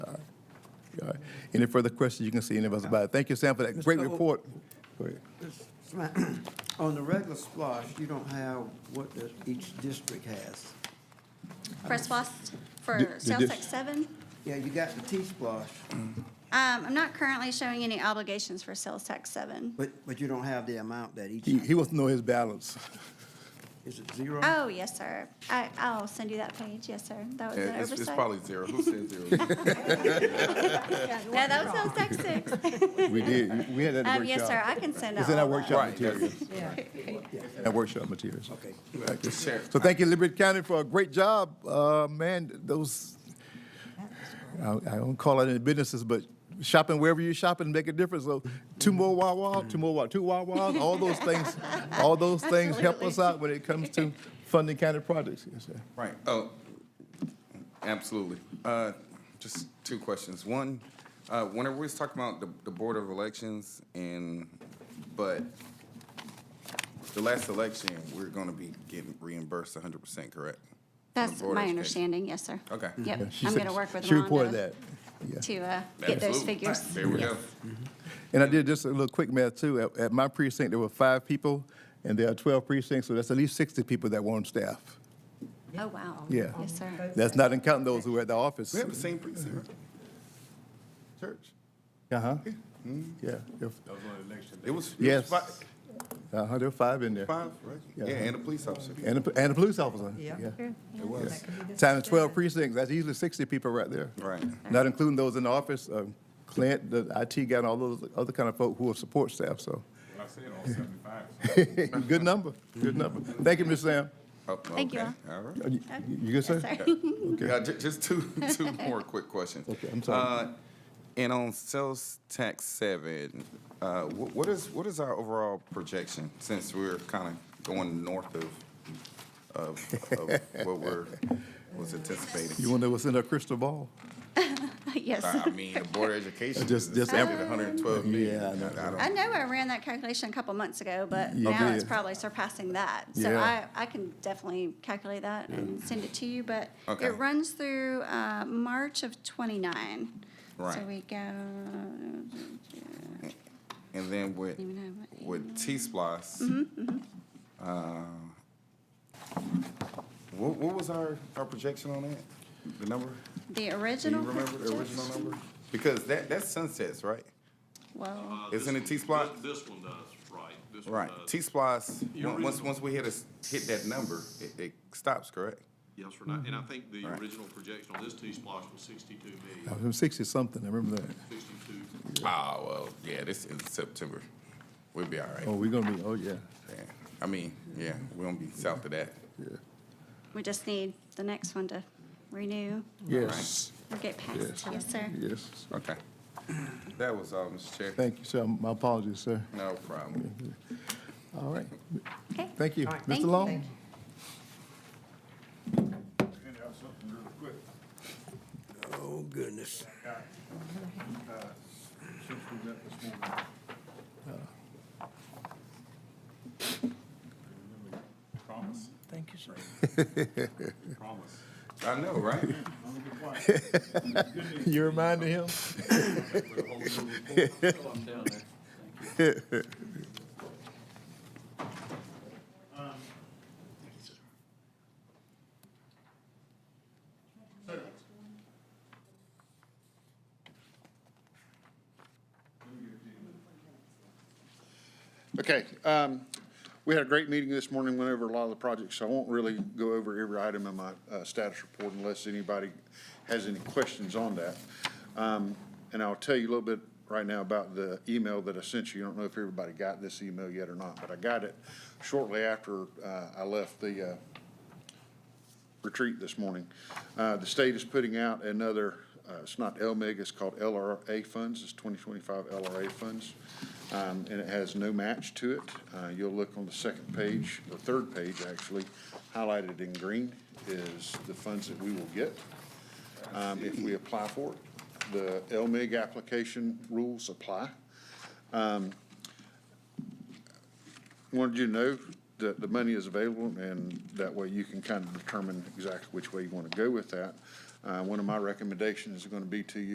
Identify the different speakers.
Speaker 1: Any further questions you can see any of us about it? Thank you, Sam, for that great
Speaker 2: Mr. O-
Speaker 1: report. Go ahead.
Speaker 2: Sma- On the regular splosh, you don't have what the- each district has.
Speaker 3: For SWAS,
Speaker 1: Di-
Speaker 3: for
Speaker 1: the
Speaker 3: sales
Speaker 1: dis-
Speaker 3: tax seven?
Speaker 2: Yeah, you got the T-splosh,
Speaker 3: Um, I'm not currently showing any obligations for sales tax seven.
Speaker 2: but, but you don't have the amount that each,
Speaker 1: He, he wants to know his balance.
Speaker 2: is it zero?
Speaker 3: Oh, yes, sir. I, I'll send you that page. Yes, sir. That was an
Speaker 4: Yeah, It's, it's
Speaker 3: oversight.
Speaker 4: probably zero. Who said zero?
Speaker 3: No, that was sales tax six.
Speaker 1: We did, we had that
Speaker 3: Um,
Speaker 1: workshop.
Speaker 3: yes, sir, I can send out
Speaker 1: It's in our
Speaker 3: all that.
Speaker 1: workshop
Speaker 4: Right, that's-
Speaker 1: materials. That workshop materials.
Speaker 2: Okay.
Speaker 1: Thank you.
Speaker 4: Sure.
Speaker 1: So thank you, Liberty County, for a great job. Uh, man, those, I, I don't call it any businesses, but shopping wherever you're shopping make a difference. So two more Wawa, two more Wawa, two Wawas, all those things, all those things help us out when it comes to funding county projects. Yes, sir.
Speaker 4: Right, oh, absolutely. Uh, just two questions. One, uh, whenever we was talking about the, the Board of Elections and, but the last election, we're gonna be getting reimbursed hundred percent, correct?
Speaker 3: That's
Speaker 4: Board of
Speaker 3: my
Speaker 4: Education.
Speaker 3: understanding, yes, sir.
Speaker 4: Okay.
Speaker 3: Yep,
Speaker 1: Yeah, she
Speaker 3: I'm
Speaker 1: said-
Speaker 3: gonna work with
Speaker 1: She reported
Speaker 3: Rhonda
Speaker 1: that. Yeah.
Speaker 3: to, uh, get those
Speaker 4: Absolutely.
Speaker 3: figures.
Speaker 4: There we go.
Speaker 1: And I did just a little quick math too. At, at my precinct, there were five people, and there are 12 precincts, so that's at least 60 people that were on staff.
Speaker 3: Oh, wow.
Speaker 1: Yeah.
Speaker 3: Yes, sir.
Speaker 1: That's not in counting those who were at the office.
Speaker 4: We have the same precinct, right? Church.
Speaker 1: Uh-huh.
Speaker 4: Hmm?
Speaker 1: Yeah. if-
Speaker 4: It was. it was
Speaker 1: Yes.
Speaker 4: fi-
Speaker 1: Uh-huh, there were five in there.
Speaker 4: Five, right?
Speaker 1: Yeah.
Speaker 4: Yeah, and a police officer.
Speaker 1: And a, and a police officer.
Speaker 5: Yeah.
Speaker 4: It was.
Speaker 1: Times twelve precincts, that's usually sixty people right there.
Speaker 4: Right.
Speaker 1: Not including those in the office, um, Clint, the IT guy, and all those other kind of folk who are support staff, so.
Speaker 6: I said all seventy-five.
Speaker 1: Good number, good number. Thank you, Ms. Sam.
Speaker 4: Oh,
Speaker 3: Thank you
Speaker 4: okay.
Speaker 3: all.
Speaker 4: All right.
Speaker 1: Uh, You you good, sir?
Speaker 3: Sorry.
Speaker 4: Yeah, ju- just two, two more quick questions.
Speaker 1: Okay, I'm sorry.
Speaker 4: Uh, And on sales tax seven, uh, wh- what is, what is our overall projection since we're kind of going north of, of, of what we're, was
Speaker 1: You
Speaker 4: anticipating?
Speaker 1: wanna know what's in our crystal ball?
Speaker 3: Yes.
Speaker 4: I I mean, the Board of Education is
Speaker 1: Just- just-
Speaker 4: estimated hundred and twelve million.
Speaker 1: Yeah, I know.
Speaker 4: don't-
Speaker 3: I know I ran that calculation a couple months ago, but
Speaker 1: You
Speaker 3: now it's
Speaker 1: did.
Speaker 3: probably surpassing that. So I,
Speaker 1: Yeah.
Speaker 3: I can definitely calculate that and send it to you, but
Speaker 4: Okay.
Speaker 3: it runs through, uh, March of twenty-nine. So
Speaker 4: Right.
Speaker 3: we go,
Speaker 4: And then with,
Speaker 3: Even Mm-hmm, have what
Speaker 4: with T-Splice, uh, what, what was our, our projection on that? The number?
Speaker 3: the
Speaker 4: Do you
Speaker 3: original.
Speaker 4: remember the original
Speaker 3: projection-
Speaker 4: number? Because that, that sunsets, right?
Speaker 3: Well,
Speaker 4: Isn't it T-Splot?
Speaker 6: This this one does, right. This one
Speaker 4: Right.
Speaker 6: does.
Speaker 4: T-Splot's,
Speaker 6: The
Speaker 4: on- once,
Speaker 6: original.
Speaker 4: once we hit us, hit that number, it, it stops, correct?
Speaker 6: Yes or not. And I think the
Speaker 4: Mm-hmm. Right.
Speaker 6: original projection on this T-Splosh was sixty-two
Speaker 1: I
Speaker 6: million,
Speaker 1: was sixty-something, I remember that.
Speaker 6: sixty-two.
Speaker 4: Oh, well, yeah, this is September. We'll be all
Speaker 1: Oh,
Speaker 4: right.
Speaker 1: we're gonna be, oh, yeah.
Speaker 4: Yeah. I mean, yeah, we won't be south of that.
Speaker 3: we just need the next one to renew
Speaker 1: Yes,
Speaker 3: or get
Speaker 1: Yes.
Speaker 3: passed. Yes, sir.
Speaker 1: yes.
Speaker 4: Okay. That was all, Mr. Chair.
Speaker 1: Thank you, sir. My apologies, sir.
Speaker 4: No problem.
Speaker 1: All right.
Speaker 3: Okay.
Speaker 1: Thank you.
Speaker 3: Thank
Speaker 1: Mr.
Speaker 3: you.
Speaker 1: Long?
Speaker 6: Hand out something real quick.
Speaker 2: Oh, goodness.
Speaker 6: since we met this morning. Promise? Thank you, sir. Promise.
Speaker 4: I know, right?
Speaker 6: Let me be quiet.
Speaker 1: You reminded him?
Speaker 6: Put a whole new report.
Speaker 7: Okay, um, we had a great meeting this morning, went over a lot of the projects, so I won't really go over every item in my, uh, status report unless anybody has any questions on that. Um, and I'll tell you a little bit right now about the email that I sent you. I don't know if everybody got this email yet or not, but I got it shortly after, uh, I left the, uh, retreat this morning. Uh, The state is putting out another, uh, it's not LMIG, it's called LRA funds, it's 2025 LRA funds, Um, and it has no match to it. Uh, You'll look on the second page, the third page, actually, highlighted in green is the funds that we will get um, if we apply for it. The LMIG application rules apply. wanted you to know that the money is available, and that way you can kind of determine exactly which way you want to go with that. Uh, One of my recommendations is going to be to you